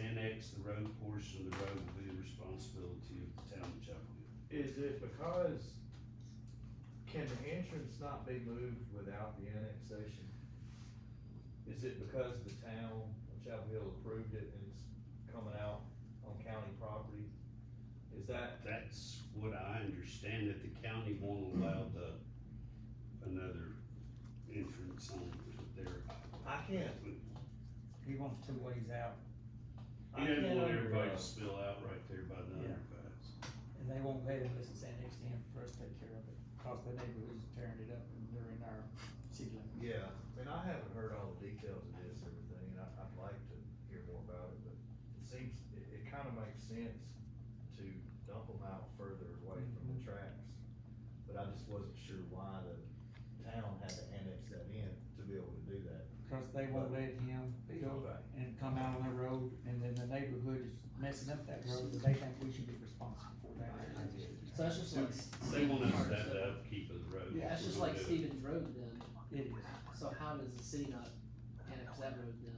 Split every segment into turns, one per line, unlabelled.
takes the road portion of the road will be the responsibility of the town of Chapel
Is it because, can the entrance not be moved without the annexation? Is it because the town of Chapel Hill approved it and it's coming out on county property? Is that,
Hill. That's what I understand, that the county won't allow the, another entrance on their.
I can't,
He wants two ways out,
He
I can't
doesn't want
under- uh,
everybody to spill out right there by the underpass.
and they won't let him listen to next to him for us to take care of it, cause the neighborhood's tearing it up and they're in our city limits.
Yeah, and I haven't heard all the details of this and everything, and I, I'd like to hear more about it, but it seems, it, it kinda makes sense to dump them out further away from the
Mm-hmm.
tracks. But I just wasn't sure why the town had to annex that in to be able to do that.
Cause they won't let him build
Right.
and come out on the road, and then the neighborhood is messing up that road, and they think we should be responsible for that.
So that's just like.
They want us
Stevens
to have
Road.
the upkeep of the road.
Yeah,
That's
We're
just
gonna
like
do it.
Stevens Road then,
It is,
so how does the city not annex that road then,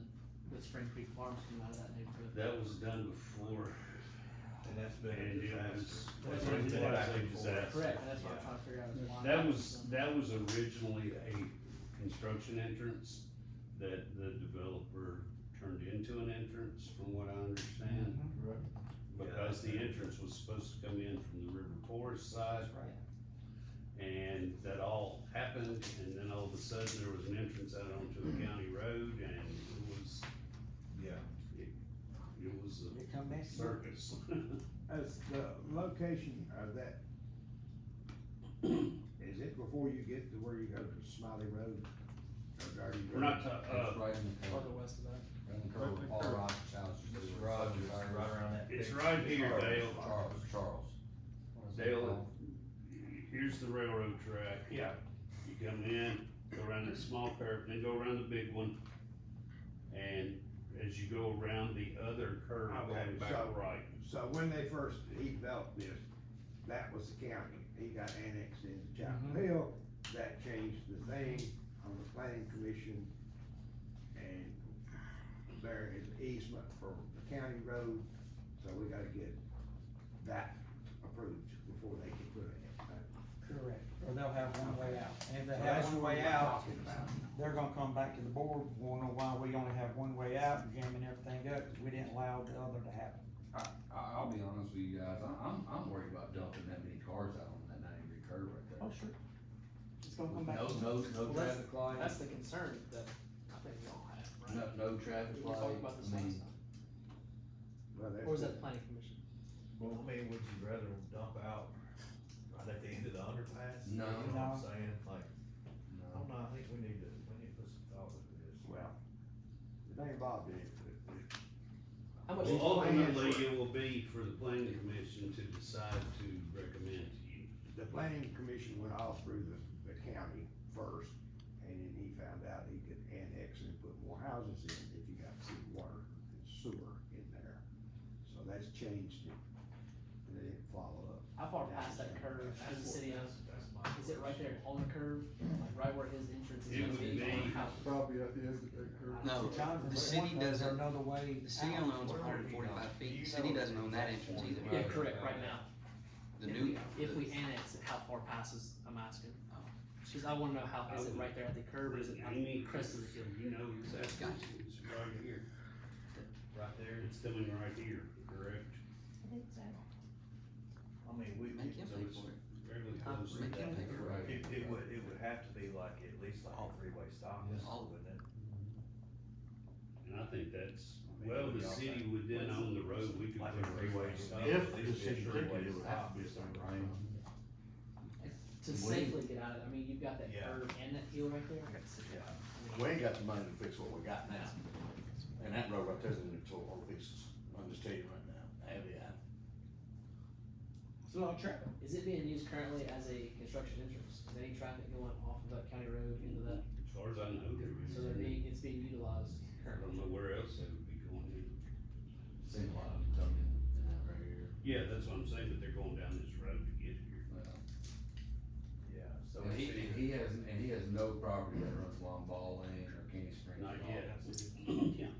with Spring Creek Farms coming out of that neighborhood?
That was done before,
And that's been a
and it was, that's
disaster.
what
what
I'm
a
looking for.
disaster.
Correct, and that's what I'm trying to figure out is why.
That was, that was originally a construction entrance that the developer turned into an entrance, from what I understand. Because the entrance was supposed to come in from the river forest side,
that's right.
and that all happened, and then all of a sudden, there was an entrance out onto a county road, and it was,
Yeah.
it was
They come
a
messing up.
circus.
As the location of that, is it before you get to where you go to Smiley Road? Or are you-
We're not, ta- uh,
It's right in the
Farther
curve,
west of that.
right in the curve of Paul Rogers' house. you see
Mr.
where
Rogers,
it's-
right around that.
It's
big-
right here, Dale.
Charles, Charles. What is it
Dale,
called?
here's the railroad track. Yeah. You come in, go around that small curve, then go around the big one. And as you go around the other curve, going
Okay,
back
so-
right.
So when they first, he developed this, that was the county, he got annexed into Chapel
Mm-hmm.
Mhm.
Hill, that changed the thing on the planning commission. And there is easement for the county road, so we gotta get that approved before they can put it in.
Correct, or they'll have one way out, and if they
So
have
that's
one
what
way
we're
out,
talking about.
they're gonna come back to the board, wondering why we only have one way out, and jamming everything up, 'cause we didn't allow the other to happen.
I, I- I'll be honest with you guys, I- I'm, I'm worried about dumping that many cars out on that ninety degree curve right there.
sure. It's gonna come back.
No, no, no
Well, that's-
traffic light,
That's the concern that I think we all have, right?
no, no
We
traffic
were
light,
talking about this
I
last
mean,
time,
Well,
or was that
that's,
the planning commission?
Well, I mean, would you rather them dump out right at the end of the underpass? You
No.
know what I'm
No.
saying, like, I
no.
don't know, I think we need to, we need to put some thought into this.
well, it ain't Bob did, but
How much,
Well,
how
ultimately, it will be for the planning commission to decide to recommend to you.
the planning commission went all through the, the county first, and then he found out he could annex and put more houses in if you got some water and sewer in there. So that's changed it, and they didn't follow up.
far past that curve is the city of,
That's my
is it right
question.
there on the curve, like right where his entrance is
It
gonna
would
be?
be-
Probably at the end of that curve.
No,
Jonathan,
the
they
city
want those, there's
doesn't-
Another way.
The city
out.
only owns
Where are
hundred and
we
forty-five
now? Do
feet,
you
the city
know
doesn't own that entrance
Yeah,
either.
correct, right now.
The
If
new.
we- If we annex it, how far past is, I'm asking.
Oh.
Cause I wanna know how, is it right there at the curb or is it on the
Amy,
crest of the hill?
You know exactly,
Gotcha.
it's right here.
Right there,
It's coming right here, correct?
I mean, we,
Make him
So
pay
it's
for it.
fairly
Huh?
close to
Make him
that.
pay for it.
it, it would, it would have to be like, at least like a three-way stop,
All-
wouldn't it?
And I think that's, well, the city would then own the road, we could
Like
put
a three-way
freeways up.
stop. at
If
least
the
be a
city
three-way
did it, it would
stop.
have to be something, right?
To
Wait.
safely get out of it, I mean, you've got that
Yeah.
curb and that hill right there.
Yeah.
We ain't got the money to fix what we got now, and that road right there's gonna be total fixes, I'm just telling you right now, I have, yeah.
It's a long trip.
Is it being used currently as a construction entrance? Is any traffic going off of that county road into that?
As far as I know,
So
there
they're
is.
being, it's being utilized
I don't
currently.
know where else they would be going in.
Seen a lot of them coming in and out right here,
Yeah, that's what I'm saying, but they're going down this road to get here.
well.
Yeah, so.
And he,
it's-
and he has, and he has no property that runs along Ball Lane or Candy Springs.
Not
at all.
yet. Yeah.